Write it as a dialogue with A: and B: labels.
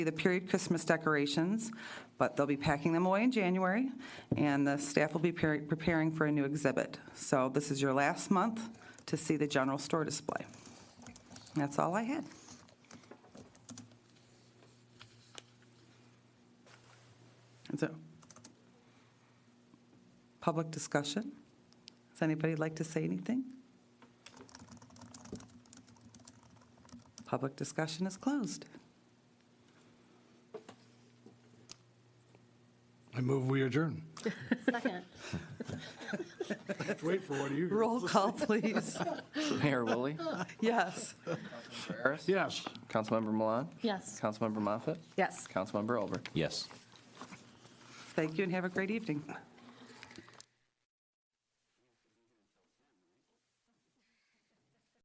A: the period Christmas decorations, but they'll be packing them away in January, and the staff will be pre- preparing for a new exhibit. So this is your last month to see the general store display. That's all I had. Is there public discussion? Does anybody like to say anything? Public discussion is closed.
B: I move we adjourn.
C: Second.
B: Wait for what you.
A: Roll call, please.
D: Mayor Woolley,
A: Yes.
D: Harris,
B: Yes.
D: Councilmember Milan,
C: Yes.
D: Councilmember Moffett,
C: Yes.
D: Councilmember Olber.
E: Yes.
A: Thank you and have a great evening.